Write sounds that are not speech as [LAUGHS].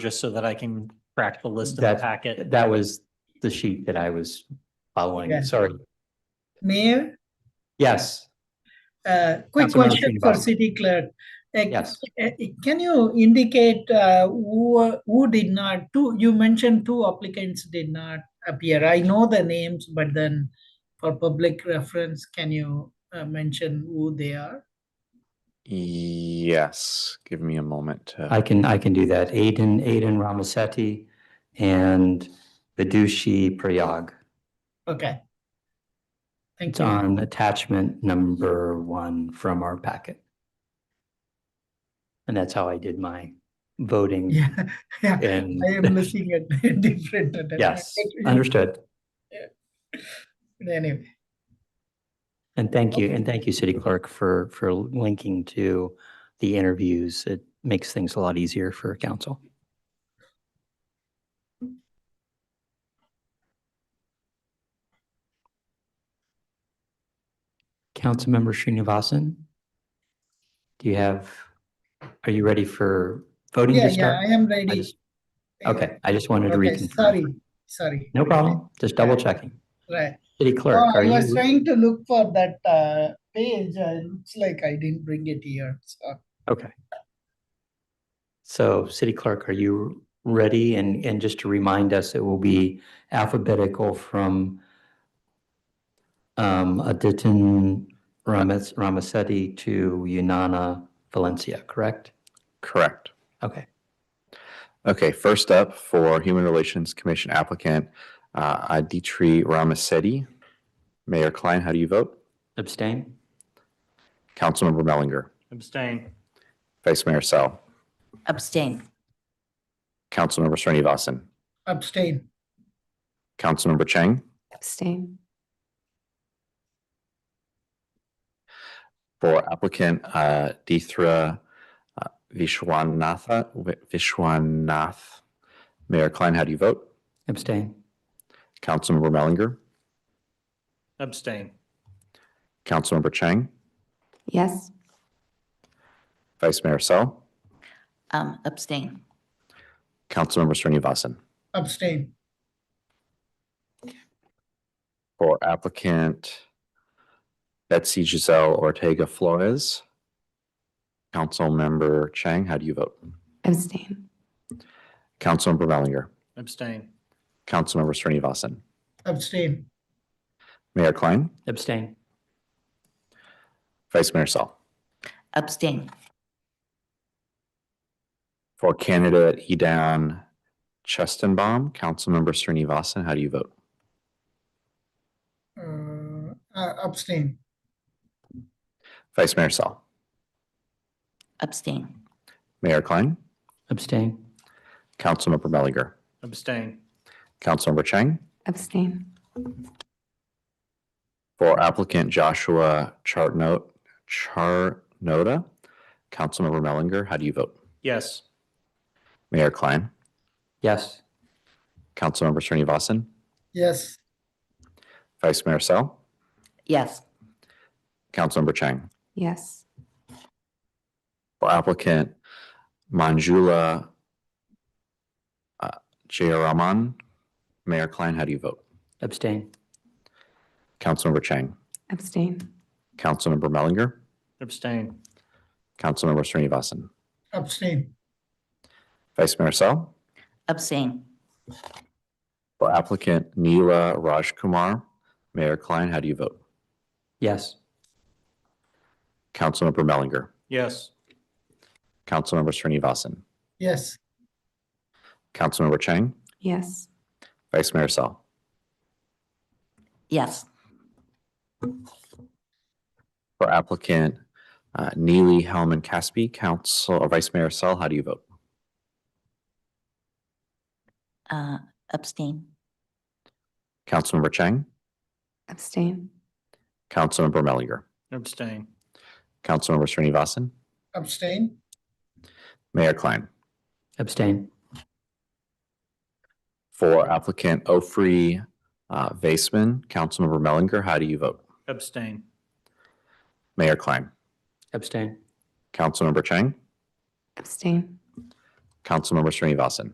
just so that I can crack the list in the That's- packet. That was the sheet that I was Yeah. following, sorry. Mayor, Yes, uh, quick Councilmember question for Srinivasan. city clerk. Uh, Yes. uh, Can you indicate uh, who, who did not, two, you mentioned two applicants did not appear. I know the names, but then for public reference, can you uh, mention who they are? Yes, give me a moment. to- I can, I can do that. Aiden, Aiden Ramasetti and Vidushi Prayag. Okay. Thank It's you. on attachment number one from our packet. And that's how I did my voting [LAUGHS] Yeah, yeah. and, I am looking at [LAUGHS] different. yes, attachment. understood. Anyway, And thank you, Okay. and thank you, City Clerk, for, for linking to the interviews. It makes things a lot easier for council. Councilmember Srinivasan? Do you have, are you ready for voting yeah, to yeah, start? I am ready. just- Okay, I just wanted to Okay, reconfirm. sorry, sorry. No problem, just double checking. Right. City Clerk, Oh, are I was you, trying to look for that uh, page. Uh, it looks like I didn't bring it here. So So, City Clerk, are you ready? And, and just to remind us, it will be alphabetical from um, Aditin Ramas, Ramasetti to Unana Valencia, correct? Correct. Okay. Okay, first up for Human Relations Commission applicant, uh, Aditri Ramasetti. Mayor Klein, how do you vote? Abstain? Councilmember Mellinger, Abstain. Vice Mayor Sel, Abstain. Councilmember Srinivasan, abstain. Councilmember Chang. Abstain. For applicant, uh, Dithra uh, Vishwanatha, Vishwanath. Mayor Klein, how do you vote? Abstain? Councilmember Mellinger, Abstain. Councilmember Chang, Yes. Vice Mayor Sel, Um, abstain. Councilmember Srinivasan. Abstain. for applicant Betsy Giselle Ortega Flores. Councilmember Chang, how do you vote? Abstain. Councilmember Mellinger, Abstain. Councilmember Srinivasan, Abstain. Mayor Klein, Abstain? Vice Mayor Sel. Abstain. For candidate Edan Chestenbaum, Councilmember Srinivasan, how do you vote? Uh, uh, abstain. Vice Mayor Sel, Abstain. Mayor Klein, Abstain? Councilmember Mellinger, Abstain. Councilmember Chang, Abstain. For applicant Joshua Chartnote, Charnota, Councilmember Mellinger, how do you vote? Yes. Mayor Klein, Yes? Councilmember Srinivasan, Yes. Vice Mayor Sel, Yes. Councilmember Chang. Yes. For applicant Manjula uh, Jayaraman, Mayor Klein, how do you vote? Abstain? Councilmember Chang, Abstain. Councilmember Mellinger, Abstain. Councilmember Srinivasan, Abstain. Vice Mayor Sel, Abstain. for applicant Neela Rajkumar, Mayor Klein, how do you vote? Yes? Councilmember Mellinger, Yes. Councilmember Srinivasan, Yes. Councilmember Chang, Yes. Vice Mayor Sel. Yes. For applicant uh, Neely Hellman Caspi, Council, or Vice Mayor Sel, how do you vote? Uh, abstain. Councilmember Chang, Abstain. Councilmember Mellinger, Abstain. Councilmember Srinivasan, Abstain. Mayor Klein. Abstain? For applicant Ofri uh, Vaisman, Councilmember Mellinger, how do you vote? Abstain. Mayor Klein, Abstain? Councilmember Chang, Abstain. Councilmember Srinivasan.